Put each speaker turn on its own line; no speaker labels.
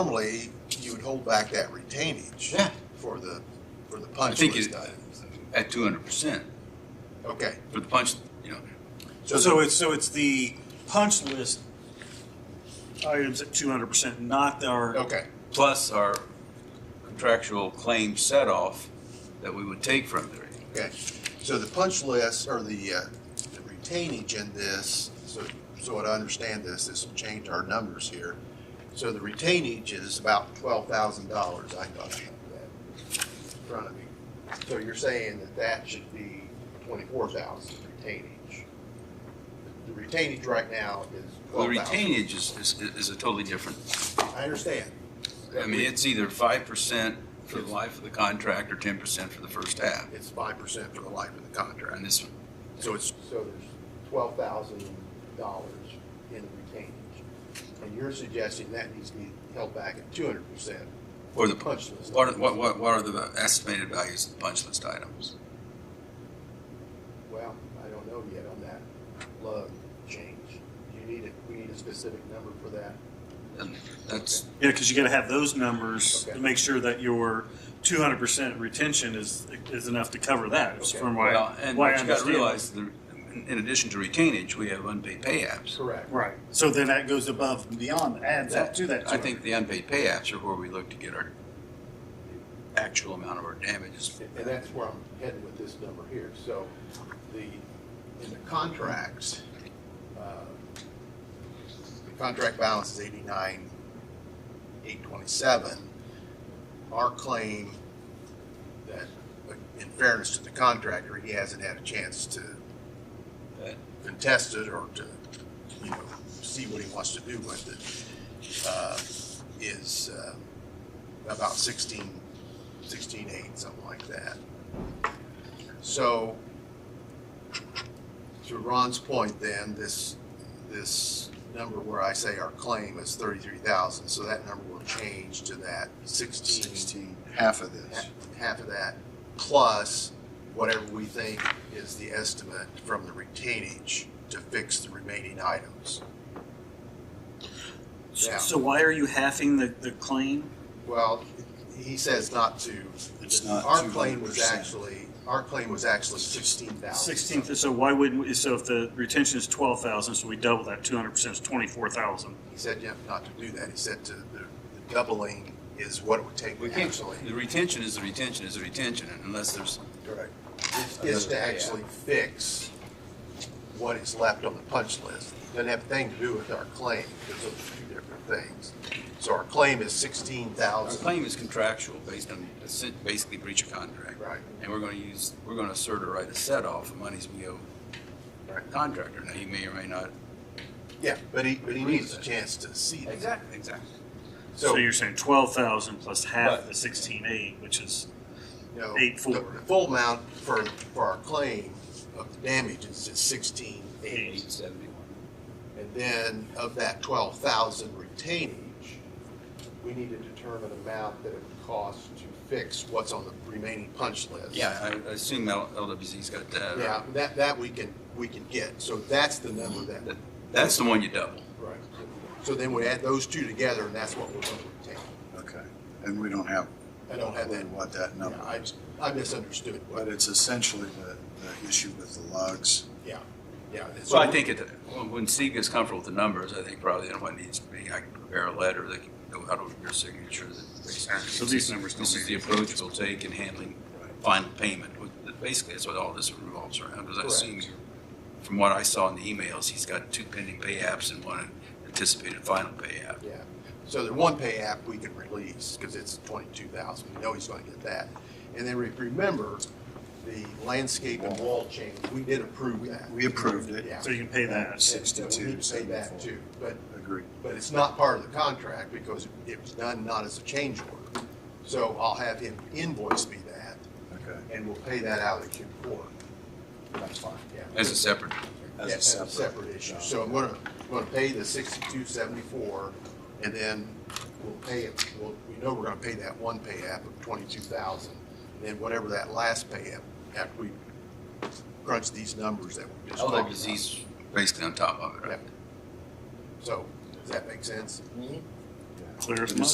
Normally, you would hold back that retainage.
Yeah.
For the, for the
I
punch
think
list
it,
items.
at two hundred percent,
Okay,
for the punch, you know,
So, so it's, so it's the punch list items at two hundred percent, not our,
okay,
plus our contractual claim set off that we would take from there.
okay. So the punch list or the, uh, the retainage in this, so, so what I understand this, this will change our numbers here. So the retainage is about twelve thousand dollars. I thought I had that in front of me. So you're saying that that should be twenty-four thousand retainage? The retainage right now is
Well,
twelve
the
thousand.
retainage is, is, is a totally different,
I understand.
I mean, it's either five percent for the life of the contract or ten percent for the first half.
It's five percent for the life of the
And
contract.
this one,
So it's. So there's twelve thousand dollars in retainage. And you're suggesting that needs to be held back at two hundred percent.
or the, punch.
punch list.
what, are- what, what what are the estimated values of the punch list items?
Well, I don't know yet on that lug change. You need it, we need a specific number for that.
And that's,
yeah, because you gotta have those numbers
Okay.
to make sure that your two hundred percent retention is, is enough to cover that, is
Okay.
from why,
well, and
why I
what you gotta
understand.
realize, the- in addition to retainage, we have unpaid pay apps.
Correct.
Right, so then that goes above and beyond, adds up to that.
I think the unpaid pay apps are where we look to get our actual amount of our damages.
And that's where I'm heading with this number here. So the, in the contracts, uh, the contract balance is eighty-nine, eight twenty-seven. Our claim that, uh, in fairness to the contractor, he hasn't had a chance to
That-
contest it or to, you know, see what he wants to do with it, uh, is, uh, about sixteen, sixteen eight, something like that. So, to Ron's point then, this, this number where I say our claim is thirty-three thousand, so that number will change to that sixteen,
sixteen, half of this.
ha- half of that, plus whatever we think is the estimate from the retainage to fix the remaining items. yeah.
So why are you halving the, the claim?
Well, he says not to.
It's not
Our claim was
200%.
actually, our claim was actually sixteen thousand.
Sixteen, so why wouldn't, we- so if the retention is twelve thousand, so we double that, two hundred percent is twenty-four thousand.
He said, yeah, not to do that. He said to, the the doubling is what it would take
We
to
can't,
actually.
the retention is the retention is the retention, and unless there's,
Correct. Is to actually fix what is left on the punch list. Doesn't have a thing to do with our claim, because those are two different things. So our claim is sixteen
our
thousand.
claim is contractual based on, basically breach of contract.
Right.
And we're gonna use, we're gonna assert or write a set off of monies we owe our contractor. Now, he may or may not.
Yeah, but he, but he needs a chance to see that.
Exactly. Exactly.
So you're saying twelve thousand plus half the sixteen-eight, which is,
you know,
Eight four.
the Full amount for, for our claim of the damages is sixteen eight.
Eight seventy-one.
And then of that twelve thousand retainage, we need to determine amount that it would cost to fix what's on the remaining punch list.
Yeah, I- I assume L- LWZ's got that.
Yeah, that, that we can, we can get. So that's the number that,
That- That's the one you double.
right. So then we add those two together and that's what we're going to retain.
Okay, and we don't have
I don't
a
have
clue
that.
what that
No,
number
I,
is.
I misunderstood.
But it's essentially the, the issue with the lugs.
Yeah, yeah.
So I think it, when Steve gets comfortable with the numbers, I think probably then what needs to be, I can prepare a letter that can go out over your signature that
so
basically,
these numbers don't
this is the
mean.
approach we'll take in handling final payment. Basically, that's what all this revolves around, because I assume, from what I saw in the emails, he's got two pending pay apps and one anticipated final pay app.
Yeah, so the one pay app we can release, because it's twenty-two thousand, we know he's gonna get that. And then re- remember, the landscape and wall change, we did approve that.
We approved it.
Yeah.
So you can pay that.
Yes.
And so we need to Pay that
62.74.
too, but,
Agreed.
but it's not part of the contract because it was done not as a change order. So I'll have him invoice me that,
Okay,
and we'll pay that out at Q four,
that's fine.
yeah.
As a separate,
As
Yeah,
a separate.
issue.
job.
So I'm gonna, I'm gonna pay the sixty-two seventy-four, and then we'll pay it, well, we know we're gonna pay that one pay app of twenty-two thousand, and then whatever that last pay app, after we crunch these numbers that we just talked about.
LWZ's basically on top of it, right?
Yep. So, does that make sense?
Clear as
It is
mud.